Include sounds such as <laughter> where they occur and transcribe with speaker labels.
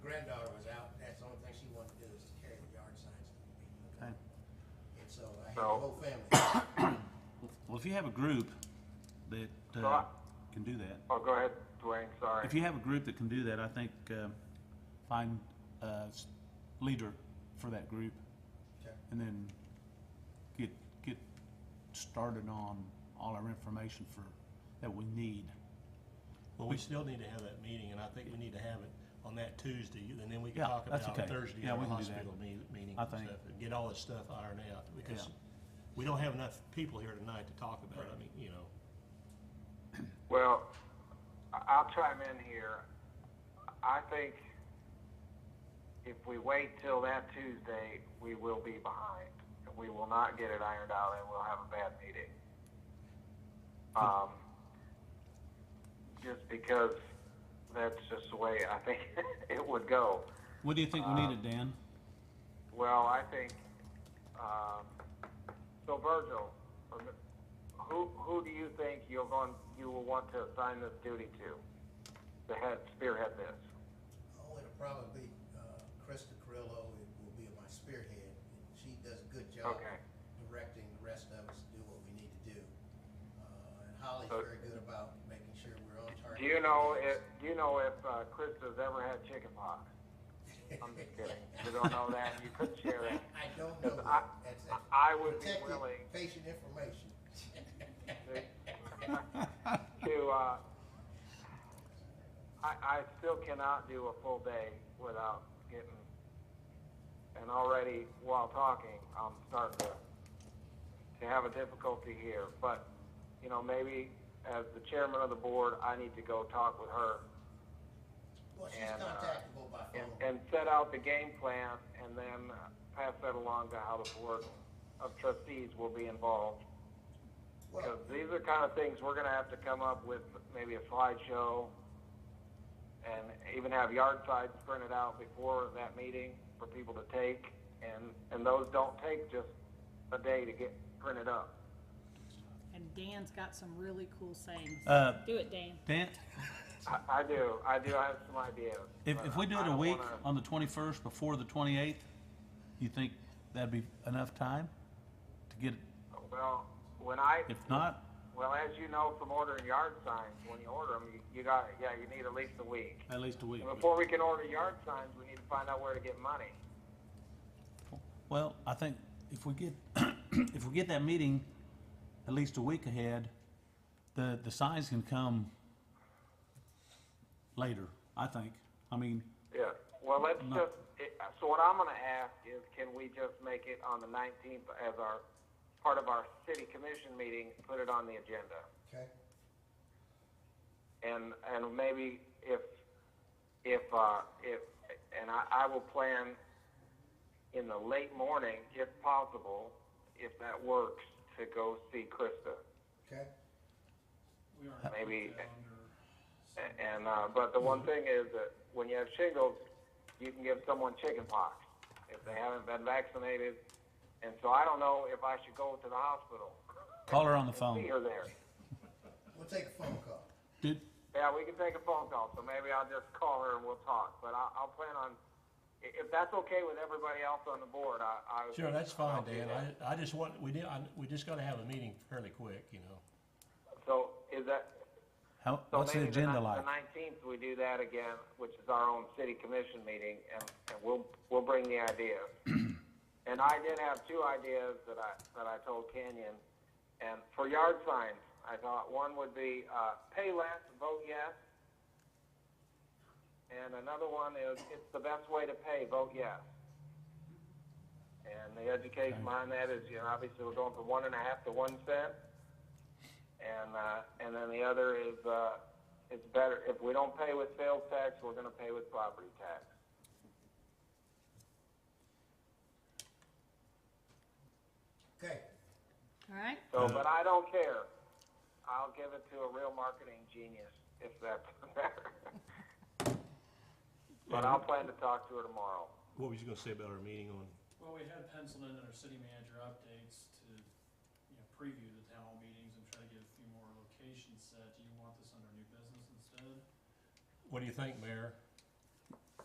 Speaker 1: the
Speaker 2: So-
Speaker 1: whole family. <coughs>
Speaker 3: Well, if you have a group that
Speaker 2: So
Speaker 3: uh,
Speaker 2: I-
Speaker 3: can do that,
Speaker 2: Oh, go ahead, Dwayne, sorry.
Speaker 3: if you have a group that can do that, I think uh, find a s- leader for that group
Speaker 1: Okay.
Speaker 3: and then get, get started on all our information for, that we need.
Speaker 4: Well, we still need to have that meeting, and I think we need to have it on that Tuesday, and then we can
Speaker 3: Yeah,
Speaker 4: talk
Speaker 3: that's
Speaker 4: about
Speaker 3: okay.
Speaker 4: Thursday
Speaker 3: Yeah,
Speaker 4: at
Speaker 3: we
Speaker 4: the
Speaker 3: can do that.
Speaker 4: hospital me- meeting
Speaker 3: I
Speaker 4: and
Speaker 3: think.
Speaker 4: stuff, and get all this stuff ironed out, because
Speaker 3: Yeah.
Speaker 4: we don't have enough people here tonight to talk about, I mean, you know.
Speaker 2: Well, I- I'll chime in here. I think if we wait till that Tuesday, we will be behind. We will not get it ironed out and we'll have a bad meeting. Um, just because that's just the way I think <laughs> it would go.
Speaker 3: What do you think we need it, Dan?
Speaker 2: Well, I think, um, so Virgil, who, who do you think you're going, you will want to assign this duty to? The head, spearhead this?
Speaker 1: Oh, it'll probably be uh, Krista Carrillo, it will be my spearhead. She does a good job
Speaker 2: Okay.
Speaker 1: directing the rest of us to do what we need to do. Uh, And Holly's
Speaker 2: So-
Speaker 1: very good about making sure we're on target.
Speaker 2: Do you know if,
Speaker 1: <laughs>
Speaker 2: do you know if, uh, Krista's ever had chicken pox? I'm just kidding. You don't know that, you couldn't share that.
Speaker 1: I don't know
Speaker 2: Because
Speaker 1: that.
Speaker 2: I-
Speaker 1: That's- that's
Speaker 2: I would be
Speaker 1: protected
Speaker 2: willing-
Speaker 1: Patient information. <laughs>
Speaker 2: <laughs> to, uh, I, I still cannot do a full day without getting, and already while talking, I'm starting to, to have a difficulty here. But, you know, maybe as the chairman of the board, I need to go talk with her
Speaker 1: Well, she's
Speaker 2: And, uh,
Speaker 1: contactable by
Speaker 2: and,
Speaker 1: phone.
Speaker 2: and set out the game plan and then uh, pass that along to how the board of trustees will be involved. Because
Speaker 1: Well,
Speaker 2: these are the kind of things we're gonna have to come up with, maybe a slideshow, and even have yard signs printed out before that meeting for people to take, and, and those don't take just a day to get printed up.
Speaker 5: And Dan's got some really cool sayings.
Speaker 3: Uh,
Speaker 5: Do it, Dan.
Speaker 3: Dan,
Speaker 2: I, I do, I do have some ideas.
Speaker 3: if,
Speaker 2: but
Speaker 3: if we do
Speaker 2: I
Speaker 3: it a
Speaker 2: don't
Speaker 3: week
Speaker 2: wanna-
Speaker 3: on the twenty-first before the twenty-eighth, you think that'd be enough time to get, it?
Speaker 2: Well, when I,
Speaker 3: if not,
Speaker 2: well, as you know from ordering yard signs, when you order them, you, you got, yeah, you need at least a week.
Speaker 3: at least a week?
Speaker 2: And before we can order yard signs, we need to find out where to get money.
Speaker 3: Well, I think if we get, <clears throat> if we get that meeting at least a week ahead, the, the signs can come later, I think. I mean,
Speaker 2: Yeah, well, let's
Speaker 3: No.
Speaker 2: just, it- so what I'm gonna ask is, can we just make it on the nineteenth as our, part of our city commission meeting, put it on the agenda?
Speaker 1: okay,
Speaker 2: And, and maybe if, if, uh, if, and I, I will plan in the late morning, if possible, if that works, to go see Krista,
Speaker 1: okay.
Speaker 2: maybe. a- And, uh, but the one thing is that when you have shingles, you can give someone chickenpox if they haven't been vaccinated. And so I don't know if I should go to the hospital.
Speaker 3: call her on the
Speaker 2: See
Speaker 3: phone.
Speaker 2: her there.
Speaker 1: We'll take a phone call.
Speaker 3: Did,
Speaker 2: Yeah, we can take a phone call, so maybe I'll just call her and we'll talk. But I, I'll plan on, i- if that's okay with everybody else on the board, I, I. would-
Speaker 4: Sure, that's
Speaker 2: I'll
Speaker 4: fine,
Speaker 2: do
Speaker 4: Dan,
Speaker 2: that.
Speaker 4: I, I just want, we did, I, we just gotta have a meeting fairly quick, you know.
Speaker 2: So is that,
Speaker 3: how,
Speaker 2: so
Speaker 3: what's the
Speaker 2: maybe
Speaker 3: agenda
Speaker 2: ni-
Speaker 3: like?
Speaker 2: The nineteenth, we do that again, which is our own city commission meeting, and, and we'll, we'll bring the
Speaker 3: <clears throat>
Speaker 2: ideas. And I did have two ideas that I, that I told Kenyon, and for yard signs, I thought one would be, uh, pay less, vote yes. And another one is, it's the best way to pay, vote yes. And the education behind that is, you know, obviously we're going from one and a half to one cent. And, uh, and then the other is, uh, it's better, if we don't pay with sales tax, we're gonna pay with property tax.
Speaker 1: Okay,
Speaker 5: All right?
Speaker 2: So, but I don't care. I'll give it to a real marketing genius if that's <laughs> better. But I'll plan to talk to her tomorrow.
Speaker 4: What was you gonna say about our meeting on,
Speaker 6: Well, we had penciled in our city manager updates to, you know, preview the town hall meetings and try to get a few more locations set. Do you want this under new business instead?
Speaker 4: what do you think, Mayor?